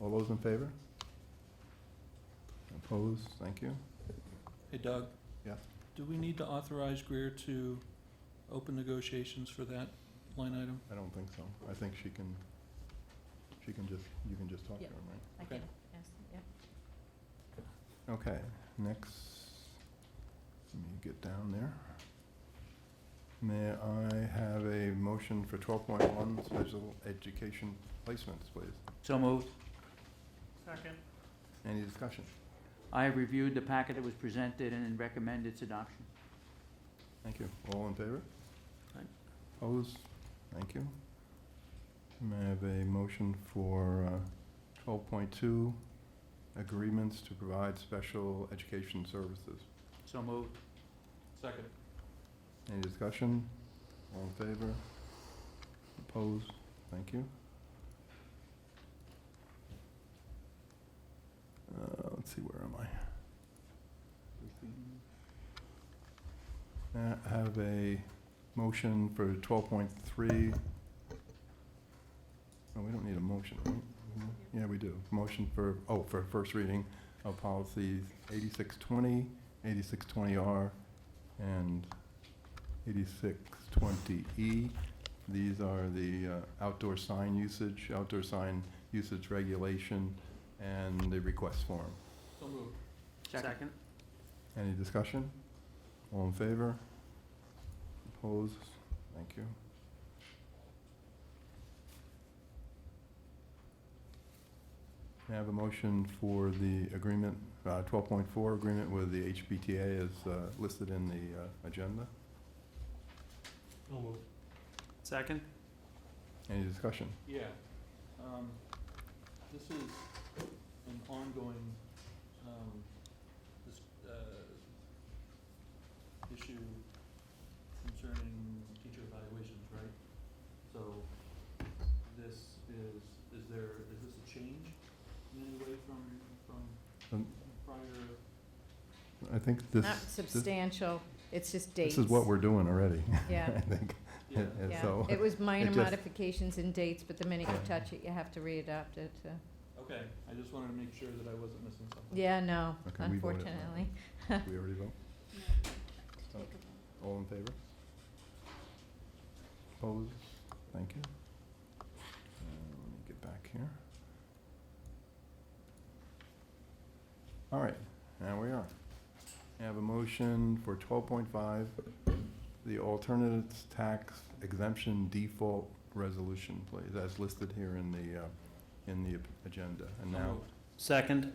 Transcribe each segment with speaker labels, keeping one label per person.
Speaker 1: All those in favor? Opposed? Thank you.
Speaker 2: Hey Doug?
Speaker 1: Yeah.
Speaker 2: Do we need to authorize Greer to open negotiations for that line item?
Speaker 1: I don't think so. I think she can, she can just, you can just talk to
Speaker 3: Yeah.
Speaker 1: him, right?
Speaker 3: I
Speaker 2: Okay.
Speaker 3: can ask, yeah.
Speaker 1: Okay, next, let me get down there. May I have a motion for twelve point one, special education placements, please?
Speaker 4: So moved.
Speaker 2: Second.
Speaker 1: Any discussion?
Speaker 4: I have reviewed the packet that was presented and recommend its adoption.
Speaker 1: Thank you. All in favor?
Speaker 2: Aye.
Speaker 1: Opposed? Thank you. May I have a motion for uh, twelve point two, agreements to provide special education services?
Speaker 4: So moved.
Speaker 2: Second.
Speaker 1: Any discussion? All in favor? Opposed? Thank you. Uh, let's see, where am I? Uh, I have a motion for twelve point three. No, we don't need a motion, right? Yeah, we do. Motion for, oh, for first reading of policies 8620, 8620R, and E. 8620E. These are the uh, outdoor sign usage, outdoor sign usage regulation, and the request form.
Speaker 2: So moved.
Speaker 4: Second.
Speaker 1: Any discussion? All in favor? Opposed? Thank you. May I have a motion for the agreement, uh, 12.4, agreement with the HPTA as uh, listed in the uh, agenda?
Speaker 2: So moved. Second?
Speaker 1: Any discussion?
Speaker 2: Yeah. Um, This is an ongoing, um, this, uh, issue concerning teacher evaluations, right? So this is, is there, is this a change in any way from, from
Speaker 1: Um,
Speaker 2: prior?
Speaker 1: I think this,
Speaker 3: Not substantial, it's just dates.
Speaker 1: this is what we're doing already, I
Speaker 3: Yeah,
Speaker 1: think.
Speaker 2: Yeah,
Speaker 1: And
Speaker 3: yeah.
Speaker 1: so,
Speaker 3: It was minor
Speaker 1: just-
Speaker 3: modifications in dates, but the minute you
Speaker 1: Yeah.
Speaker 3: touch it, you have to readopt it. so.
Speaker 2: okay, I just wanted to make sure that I wasn't missing something.
Speaker 3: Yeah, no,
Speaker 1: Okay, we voted on it.
Speaker 3: unfortunately.
Speaker 1: we already vote?
Speaker 3: a vote.
Speaker 1: All in favor? Opposed? Thank you. Uh, Let me get back here. All right, now we are. I have a motion for twelve point five, the alternatives tax exemption default resolution, please, as listed here in the, uh, in the agenda. And
Speaker 2: So
Speaker 1: now,
Speaker 2: moved.
Speaker 4: Second.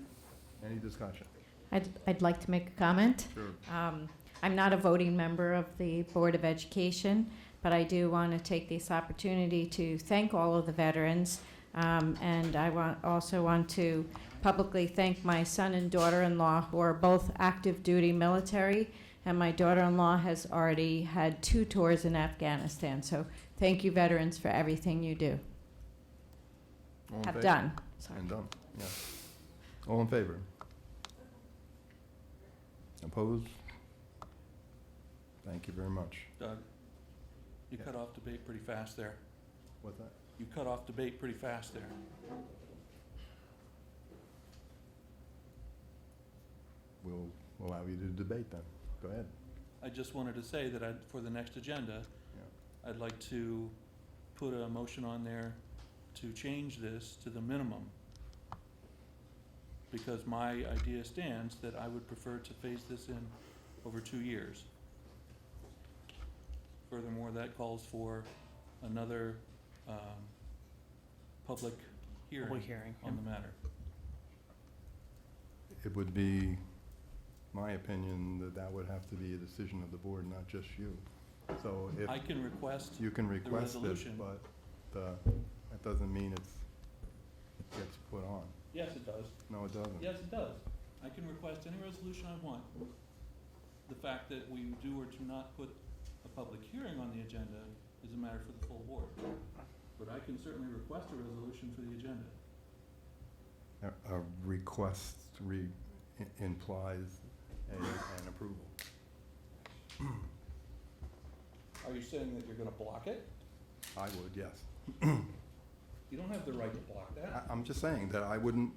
Speaker 1: any discussion?
Speaker 3: I'd, I'd like to make a comment.
Speaker 1: Sure.
Speaker 3: Um, I'm not a voting member of the Board of Education, but I do want to take this opportunity to thank all of the veterans. Um, and I want, also want to publicly thank my son and daughter-in-law, who are both active duty military. And my daughter-in-law has already had two tours in Afghanistan. So thank you, veterans, for everything you do,
Speaker 1: All in
Speaker 3: have
Speaker 1: favor?
Speaker 3: done. Sorry.
Speaker 1: And done, yeah. All in favor? Opposed? Thank you very much.
Speaker 2: Doug, you
Speaker 1: Yeah.
Speaker 2: cut off debate pretty fast there.
Speaker 1: What's that?
Speaker 2: You cut off debate pretty fast there.
Speaker 1: We'll allow you to debate then. Go ahead.
Speaker 2: I just wanted to say that I, for the next agenda, I'd like to put a motion on there to change this to the minimum. Because my idea stands that I would prefer to phase this in over two years. Furthermore, that calls for another, um, public hearing
Speaker 4: hearing.
Speaker 2: on the matter.
Speaker 1: It would be my opinion that that would have to be a decision of the board, not just you. So if
Speaker 2: I can request,
Speaker 1: you can request it,
Speaker 2: resolution.
Speaker 1: but uh, that doesn't mean it's, it gets put on.
Speaker 2: yes, it does,
Speaker 1: No, it doesn't.
Speaker 2: Yes, it does. I can request any resolution I want. The fact that we do or do not put a public hearing on the agenda is a matter for the full board. But I can certainly request a resolution for the agenda.
Speaker 1: A a request re, i- implies a- an approval.
Speaker 2: Are you saying that you're gonna block it?
Speaker 1: I would, yes.
Speaker 2: You don't have the right to block that.
Speaker 1: I- I'm just saying that I wouldn't